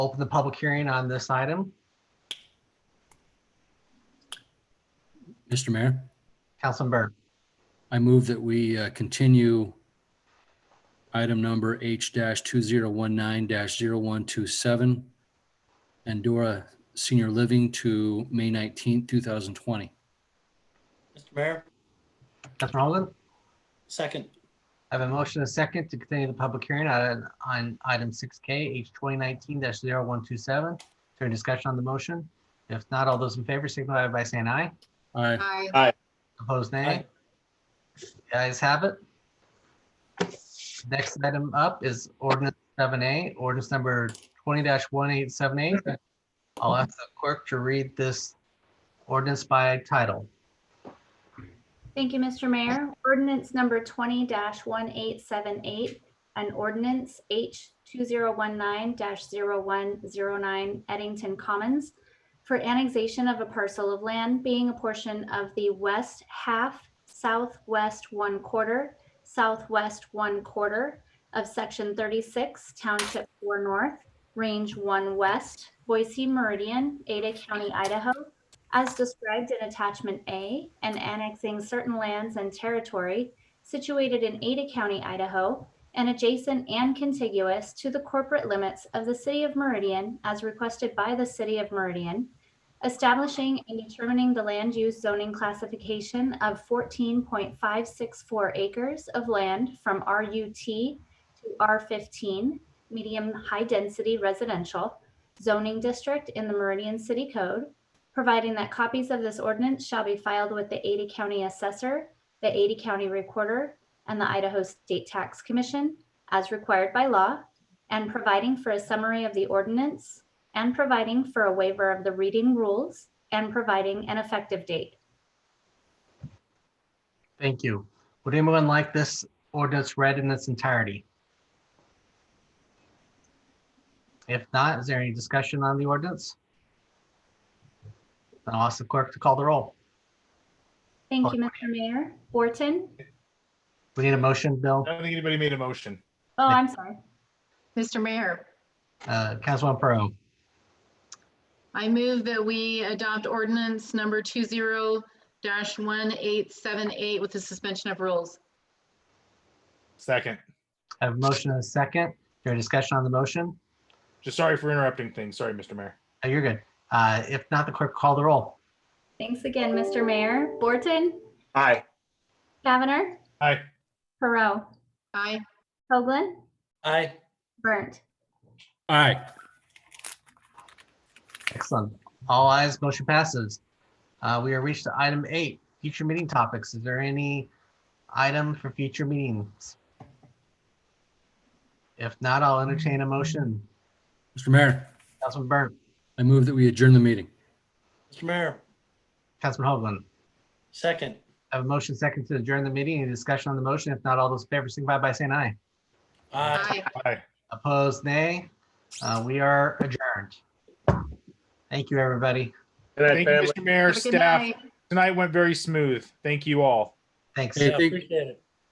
open the public hearing on this item. Mr. Mayor, Councilman Burr, I move that we uh, continue item number H dash two zero one nine dash zero one two seven Andorra Senior Living to May nineteenth, two thousand twenty. Mr. Mayor, Councilman Holden, second. I have a motion and a second to continue the public hearing on, on item six K, H twenty nineteen 127 Is there any discussion on the motion? If not, all those in favor signify by saying aye. Aye. Aye. Opposed, nay. Aye. The Ayes have it. Next item up is ordinance seven A, ordinance number twenty one eight seven eight. I'll ask the clerk to read this ordinance by title. Thank you, Mr. Mayor. Ordinance number twenty one eight seven eight, an ordinance H two zero one nine 109 Eddington Commons for annexation of a parcel of land being a portion of the west half, southwest one quarter, southwest one quarter of section thirty-six Township four North, range one west, Boise Meridian, Ada County, Idaho, as described in attachment A, and annexing certain lands and territory situated in Ada County, Idaho, and adjacent and contiguous to the corporate limits of the city of Meridian as requested by the city of Meridian, establishing and determining the land use zoning classification of fourteen point five six four acres of land from RUT to R fifteen, medium-high density residential zoning district in the Meridian City Code, providing that copies of this ordinance shall be filed with the Ada County Assessor, the Ada County Recorder, and the Idaho State Tax Commission as required by law, and providing for a summary of the ordinance, and providing for a waiver of the reading rules, and providing an effective date. Thank you. Would anyone like this ordinance read in its entirety? If not, is there any discussion on the ordinance? I'll ask the clerk to call the roll. Thank you, Mr. Mayor. Orton? We need a motion, Bill. I don't think anybody made a motion. Oh, I'm sorry. Mr. Mayor, Uh, Councilman Pro, I move that we adopt ordinance number two zero dash one eight seven eight with the suspension of rules. Second. I have a motion and a second. Is there any discussion on the motion? Just sorry for interrupting things. Sorry, Mr. Mayor. Oh, You're good. Uh, If not, the clerk call the roll. Thanks again, Mr. Mayor. Borton? Aye. Kavanagh? Aye. Perot? Aye. Hoagland? Aye. Burnt? Aye. Excellent. All eyes, motion passes. Uh, We are reached to item eight, future meeting topics. Is there any item for future meetings? If not, I'll entertain a motion. Mr. Mayor, Councilman Burnt, I move that we adjourn the meeting. Mr. Mayor, Councilman Hoagland. second. I have a motion second to adjourn the meeting. Any discussion on the motion? If not, all those in favor signify by saying aye. Uh, Aye. Aye. Aye. Opposed, nay. Uh, We are adjourned. Thank you, everybody. Thank you, Mr. Mayor, Have a good staff. night. Tonight went very smooth. Thank you all. Thanks. Hey, Yeah, thank- Appreciate it.